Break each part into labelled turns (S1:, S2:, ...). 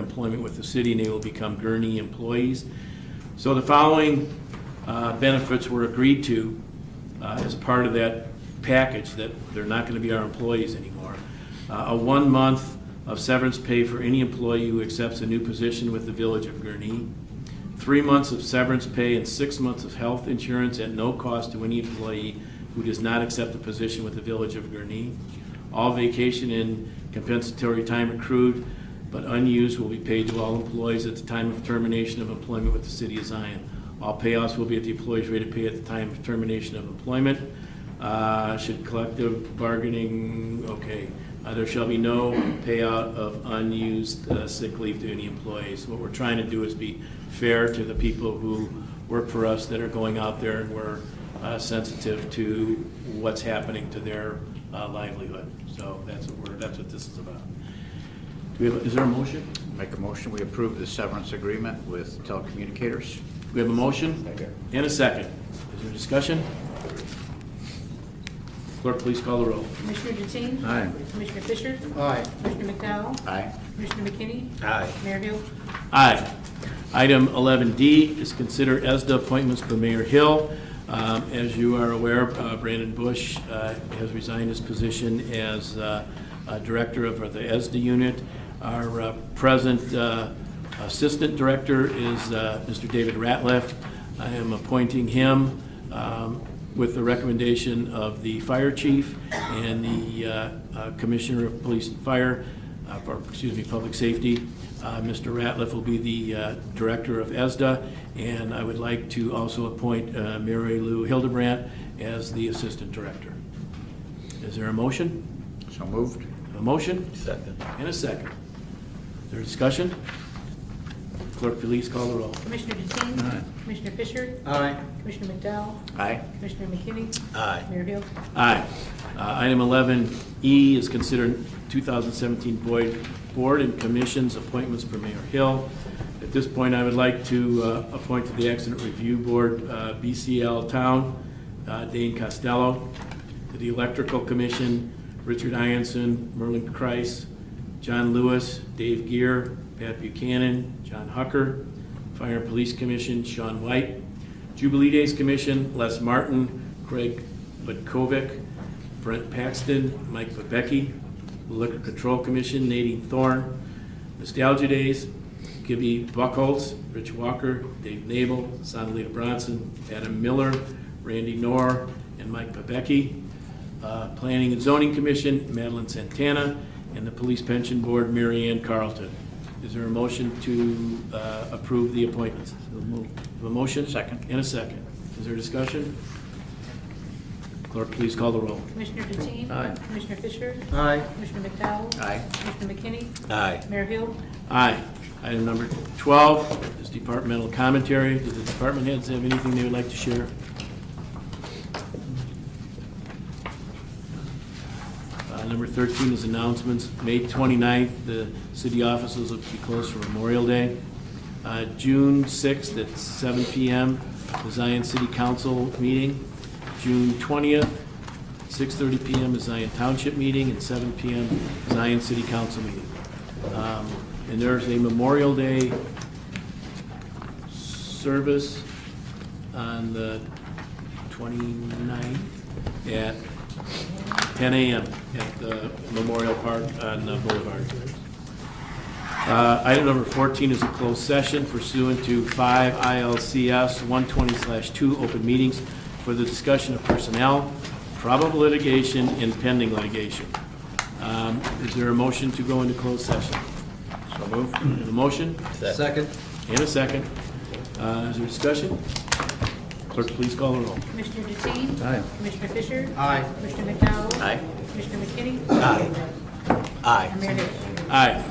S1: employment with the city, and they will become Gurney employees. So the following uh, benefits were agreed to uh, as part of that package, that they're not going to be our employees anymore. Uh, A one-month of severance pay for any employee who accepts a new position with the Village of Gurnee. Three months of severance pay and six months of health insurance at no cost to any employee who does not accept a position with the Village of Gurnee. All vacation and compensatory time accrued but unused will be paid to all employees at the time of termination of employment with the city of Zion. All payouts will be at the employee's rate of pay at the time of termination of employment. Uh, Should collective bargaining, okay, uh, there shall be no payout of unused uh, sick leave to any employees. What we're trying to do is be fair to the people who work for us that are going out there and we're uh, sensitive to what's happening to their uh, livelihood. So that's what we're, that's what this is about. Do we have, is there a motion?
S2: Make a motion, we approve the severance agreement with telecommunicators.
S1: We have a motion? And a second. Is there discussion? Clerk, please call the roll.
S3: Commissioner Deteen?
S2: Aye.
S3: Commissioner Fisher?
S4: Aye.
S3: Commissioner McDowell?
S2: Aye.
S3: Commissioner McKinney?
S2: Aye.
S3: Mayor Hill?
S1: Aye. Item 11D is consider ESDA appointments for Mayor Hill. Um, As you are aware, uh, Brandon Bush uh, has resigned his position as uh, uh, Director of the ESDA unit. Our uh, present uh, Assistant Director is uh, Mr. David Ratliff. I am appointing him um, with the recommendation of the Fire Chief and the uh, uh, Commissioner of Police and Fire uh, for, excuse me, Public Safety. Uh, Mr. Ratliff will be the uh, Director of ESDA, and I would like to also appoint uh, Mary Lou Hildebrandt as the Assistant Director. Is there a motion?
S2: So moved.
S1: A motion? Second. And a second. Is there discussion? Clerk, please call the roll.
S3: Commissioner Deteen? Commissioner Fisher?
S4: Aye.
S3: Commissioner McDowell?
S2: Aye.
S3: Commissioner McKinney? Aye. Mayor Hill?
S1: Aye. Uh, Item 11E is considered 2017 Boyd Board and Commissions appointments for Mayor Hill. At this point, I would like to uh, appoint to the Accident Review Board, uh, BCL Town, uh, Dane Costello, to the Electrical Commission, Richard Ianson, Merlin Kreis, John Lewis, Dave Gear, Pat Buchanan, John Hucker, Fire and Police Commission, Sean White, Jubilee Days Commission, Les Martin, Craig Budkovic, Brent Paxton, Mike Bebeki, Liquor Control Commission, Nadine Thorne, Nostalgia Days, Gibby Buckholz, Rich Walker, Dave Nabel, Sonalita Bronson, Adam Miller, Randy Knorr, and Mike Bebeki, uh, Planning and Zoning Commission, Madeline Santana, and the Police Pension Board, Mary Ann Carlton. Is there a motion to uh, approve the appointments? Have a motion?
S2: Second.
S1: And a second. Is there discussion? Clerk, please call the roll.
S3: Commissioner Deteen?
S2: Aye.
S3: Commissioner Fisher?
S4: Aye.
S3: Commissioner McDowell?
S2: Aye.
S3: Commissioner McKinney?
S2: Aye.
S3: Mayor Hill?
S1: Aye. Item number 12 is departmental commentary. Do the department heads have anything they would like to share? Uh, Number 13 is announcements. May 29th, the city offices will be closed for Memorial Day. Uh, June 6th at 7 PM, the Zion City Council meeting. June 20th, 6:30 PM, the Zion Township meeting, and 7 PM, Zion City Council meeting. Um, And there's a Memorial Day service on the 29th at 10 a.m. at the Memorial Park on uh, Boulevard. Uh, Item number 14 is a closed session pursuant to 5 ILCS 120/2 open meetings for the discussion of personnel, probable litigation, and pending litigation. Um, Is there a motion to go into closed session?
S2: So moved.
S1: And a motion
S4: Second.
S1: and a second. Uh, Is there discussion? Clerk, please call the roll.
S3: Commissioner Deteen?
S2: Aye.
S3: Commissioner Fisher?
S4: Aye.
S3: Commissioner McDowell?
S2: Aye.
S3: Commissioner McKinney? Aye.
S2: Aye.
S3: Mayor Hill?
S1: Aye.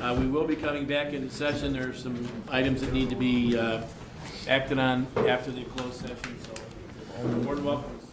S1: Uh, We will be coming back into session. There are some items that need to be uh, acted on after the closed session, so you're more than welcome.